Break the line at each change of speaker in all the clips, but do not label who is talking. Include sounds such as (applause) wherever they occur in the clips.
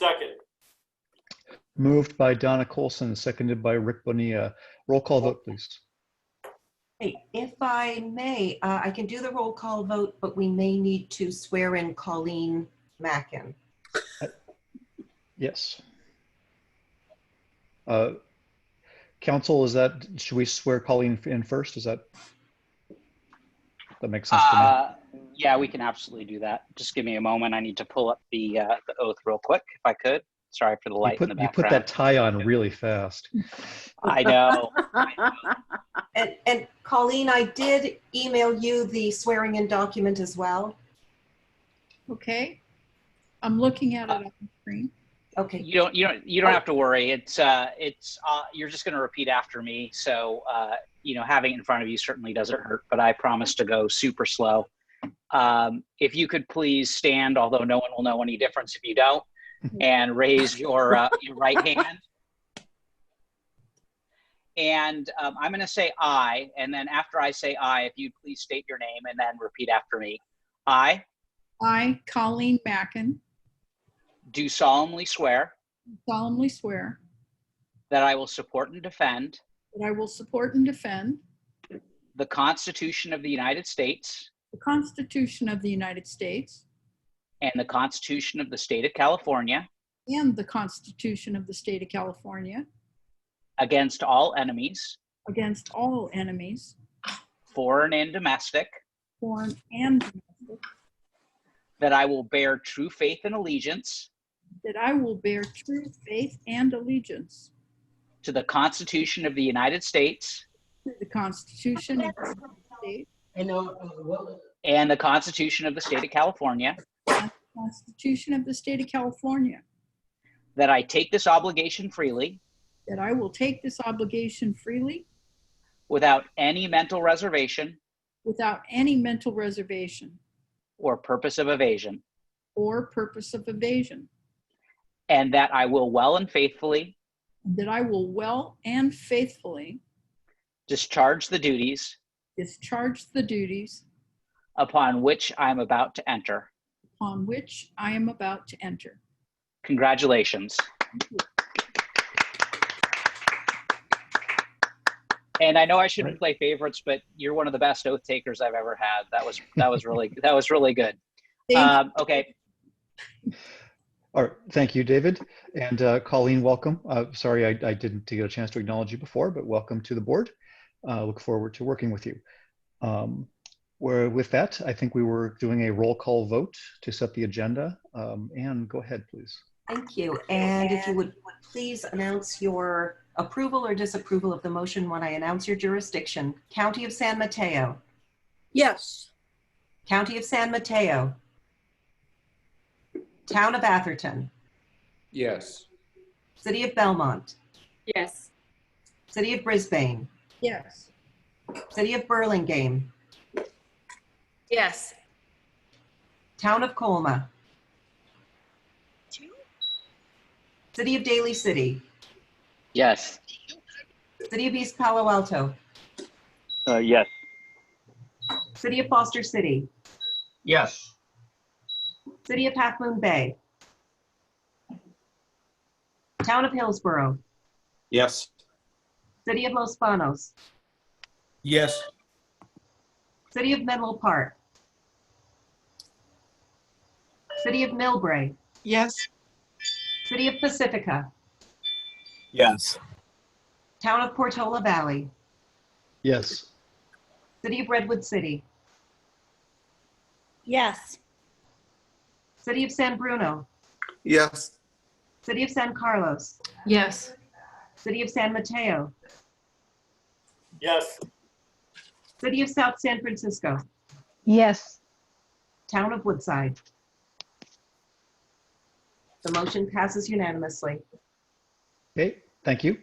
Second,
Moved by Donna Colson, seconded by Rick Bonilla. Roll call vote, please.
Hey, If I may, uh, I can do the roll call vote, but we may need to swear in Colleen Mackin.
Yes. Uh, Council, is that, should we swear Colleen in first? Is that? That makes sense to
Uh, yeah, we can absolutely do that. Just give me a moment. I need to pull up the, uh, the oath real quick if I could. Sorry for the
me. You
light in the
put, you put that
background.
tie on really fast. (laughs)
I know.
And, and Colleen, I did email you the swearing in document as well.
Okay, I'm looking at it on the screen.
Okay,
You don't you don't you don't have to worry. It's uh it's uh you're just gonna repeat after me. So uh you know having it in front of you certainly doesn't hurt, but I promise to go super slow. Um, if you could please stand, although no one will know any difference if you don't, and raise your uh, your right hand. And um, I'm gonna say I, and then after I say I, if you'd please state your name and then repeat after me. I
I, Colleen Mackin,
do solemnly swear
solemnly swear
that I will support and defend
that I will support and defend
the Constitution of the United States
the Constitution of the United States
and the Constitution of the State of California
and the Constitution of the State of California
against all enemies,
against all enemies,
foreign and domestic,
foreign and domestic,
that I will bear true faith and allegiance
that I will bear true faith and allegiance
to the Constitution of the United States
to the Constitution of the United States,
And uh, uh, well,
and the Constitution of the State of California,
the Constitution of the State of California,
that I take this obligation freely
that I will take this obligation freely
without any mental reservation
without any mental reservation
or purpose of evasion,
or purpose of evasion,
and that I will well and faithfully
that I will well and faithfully
discharge the duties
discharge the duties
upon which I am about to enter.
upon which I am about to enter.
Congratulations. And I know I shouldn't play favorites, but you're one of the best oath takers I've ever had. That was that was really (laughs) that was really good.
Thank
Um, okay,
All right, thank you, David. And uh, Colleen, welcome. Uh, Sorry, I I didn't get a chance to acknowledge you before, but welcome to the board. Uh, Look forward to working with you. Um, Where, with that, I think we were doing a roll call vote to set the agenda. Um, Anne, go ahead, please.
thank you. And if you would would please announce your approval or disapproval of the motion when I announce your jurisdiction. County of San Mateo,
Yes.
County of San Mateo, Town of Atherton,
Yes.
City of Belmont,
Yes.
City of Brisbane,
Yes,
City of Burlingame,
Yes.
Town of Colma, City of Daly City,
yes.
City of East Palo Alto,
Uh, yes.
City of Foster City,
Yes.
City of Half Moon Bay, Town of Hillsborough,
Yes.
City of Los Banos,
Yes.
City of Menlo Park, City of Millbrae,
Yes.
City of Pacifica,
Yes.
Town of Portola Valley,
Yes.
City of Redwood City,
Yes.
City of San Bruno,
Yes.
City of San Carlos,
yes.
City of San Mateo,
yes,
City of South San Francisco,
Yes,
Town of Woodside. The motion passes unanimously.
Okay, thank you.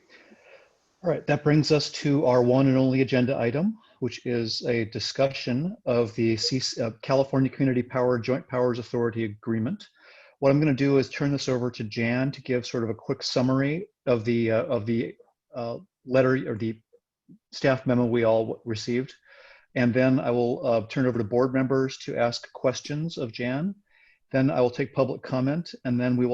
All right, that brings us to our one and only agenda item, which is a discussion of the CC uh, California Community Power Joint Powers Authority Agreement. What I'm going to do is turn this over to Jan to give sort of a quick summary of the, uh, of the uh, letter or the staff memo we all received. And then I will uh, turn it over to board members to ask questions of Jan. Then I will take public comment and then we will